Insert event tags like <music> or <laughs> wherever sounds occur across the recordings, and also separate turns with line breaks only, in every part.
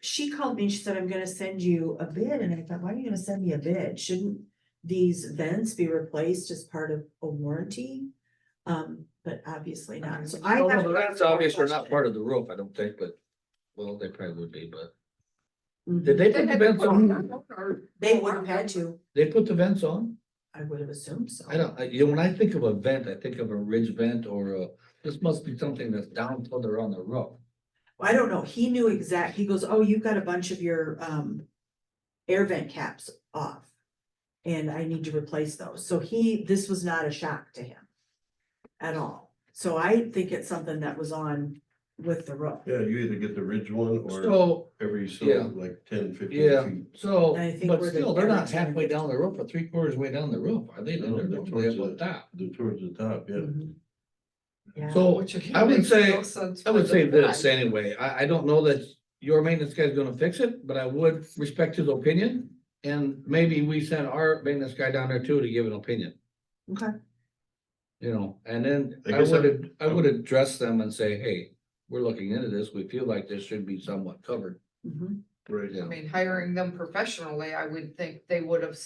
she called me, and she said, I'm gonna send you a bid, and I thought, why are you gonna send me a bid? Shouldn't these vents be replaced as part of a warranty? Um, but obviously not, so I
No,
have.
no,
to
That's
ask more
obvious, we're not
questions.
part of the roof, I don't think, but, well, they probably would be, but,
Mhm.
did they put the vents on?
They would have had to,
They put the vents on?
I would have assumed so.
I don't, I, you know, when I think of a vent, I think of a ridge vent or a, this must be something that's down further on the roof.
I don't know, he knew exact, he goes, oh, you've got a bunch of your um air vent caps off. And I need to replace those, so he, this was not a shock to him. At all, so I think it's something that was on with the roof.
Yeah, you either get the ridge one or
So,
every so
yeah.
like ten,
Yeah.
fifteen
so,
I think
but
we're the
still, they're not
average one.
halfway down the roof or three quarters way down the roof, are they? They're
No, they're
normally up
towards
on
the-
top.
feet towards the top, yeah.
Mhm. Yeah.
So,
Which again
I would
makes
say-
no sense
I would
for
say
the
this
price.
anyway, I, I don't know that your maintenance guy's gonna fix it, but I would respect his opinion. And maybe we send our maintenance guy down there too to give an opinion.
Okay.
You know, and then
I
I Oh.
guess I-
would, I would address them and say, hey, we're looking into this, we feel like this should be somewhat covered.
Mhm.
Right.
Yeah.
I mean, hiring them professionally, I would think they would have.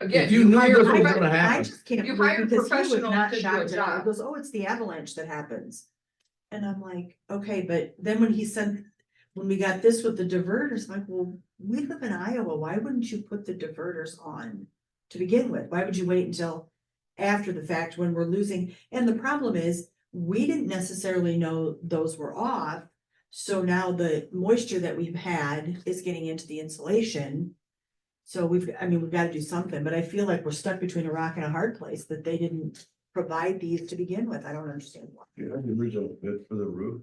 Again,
If you
you
knew
hire,
this was
profe-
gonna
I
happen,
just can't
You
believe
hire
because he was
professionals
not
to do a
shocked at all. He
job.
goes, oh, it's the avalanche that happens. And I'm like, okay, but then when he sent, when we got this with the diverters, I'm like, well, we live in Iowa, why wouldn't you put the diverters on? To begin with, why would you wait until after the fact when we're losing? And the problem is, we didn't necessarily know those were off. So now the moisture that we've had is getting into the insulation. So we've, I mean, we've got to do something, but I feel like we're stuck between a rock and a hard place that they didn't provide these to begin with. I don't understand why.
You had the original bid for the roof.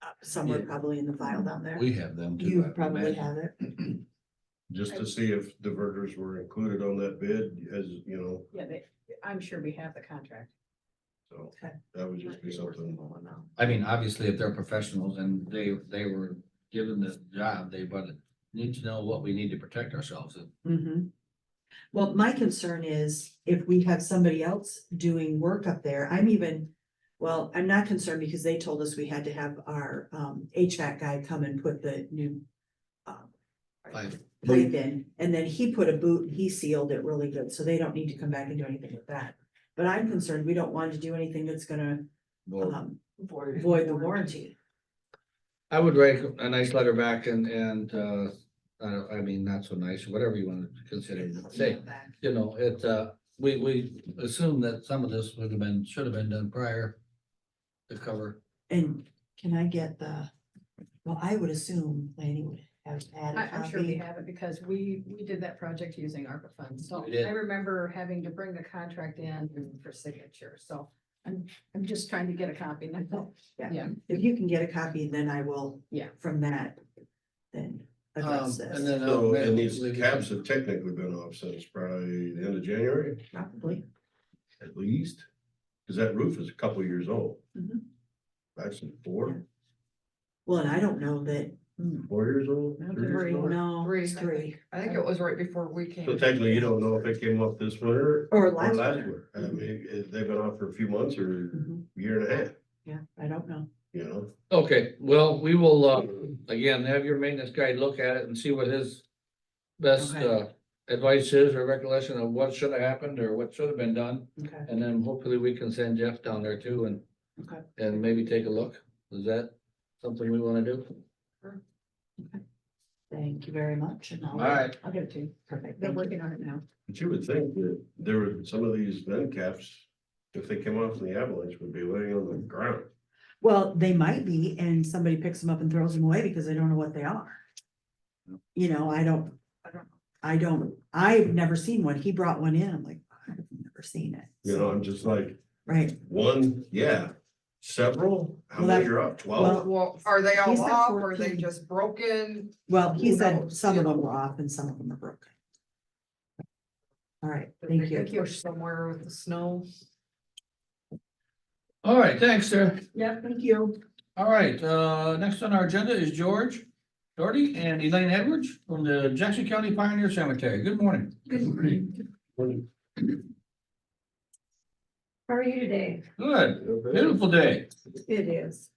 Uh, Somewhere
Yeah.
probably in the file down there.
we have them too. I
You
would
probably
imagine.
have it.
Just to see if diverters were included on that bid, as, you know,
Yeah, they, I'm sure we have the contract.
so
Okay.
that would just be something.
I mean, obviously, if they're professionals and they, they were given this job, they but need to know what we need to protect ourselves. in.
Mhm. Well, my concern is if we have somebody else doing work up there, I'm even, well, I'm not concerned because they told us we had to have our um HVAC guy come and put the new um,
Like,
pipe in, and then he put a boot, and he sealed it really good, so they don't need to come back and do anything with that. But I'm concerned, we don't want to do anything that's gonna
well,
um void the warranty.
I would write a nice letter back and, and, uh, I don't, I mean, not so nice, whatever you want to consider it, say, you know, it, uh, we, we assume that some of this would have been, should have been done prior to cover.
And can I get the, well, I would assume Lanny would have had
I,
a
I'm sure we
copy.
have it because we, we did that project using ARPA funds. So
We did.
I remember having to bring the contract in for signature. So I'm, I'm just trying to get a copy
<laughs>
now.
If you can get a copy, then I will.
Yeah.
From that, then
Um,
address
and
this,
then. I'll
So,
make-
and these caps have technically been off since probably the end of January,
probably.
at least. Cause that roof is a couple of years old.
Mhm.
Actually, four,
Well, and I don't know that, hmm,
four years old.
I don't
three years
worry,
old.
no,
Three,
it's
I
three,
I think it was right before we came.
So technically, you don't know if it came off this winter
or
or
last
last
one.
winter. I mean, it- they've been off for a few months or
Mhm,
a year and a half,
Yeah, I don't know.
you know?
Okay, well, we will, uh, again, have your maintenance guy look at it and see what his best,
Okay.
uh, advice is or recollection of what should have happened or what should have been done.
Okay,
And then hopefully we can send Jeff down there too and,
okay.
and maybe take a look. Is that something we want to do?
Thank you very much. and I'll-
All right.
I'll get it to you.
Perfect.
They're
thank you.
working on it now.
But you would think that there were some of these vent caps, if they came off in the avalanche, would be laying on the ground.
Well, they might be, and somebody picks them up and throws them away because they don't know what they are. You know, I don't, I don't, I don't, I've never seen one. He brought one in. I'm like, I've never seen it.
You know, I'm just like,
Right.
one, yeah, several, how
Well,
many
that-
are up? Twelve?
Well, are they all
He's at
off? Were they
14.
just broken?
Well, he
Who
said
knows,
some
you
of them
know?
were off and some of them are broken. All right,
Did
thank
they get
you.
pushed Somewhere with the snow.
All right, thanks, sir.
Yeah, thank you.
All right, uh, next on our agenda is George Doherty and Elaine Edwards from the Jackson County Pioneer Cemetery. Good morning.
Good morning. How are you today?
Good, beautiful day.
It is.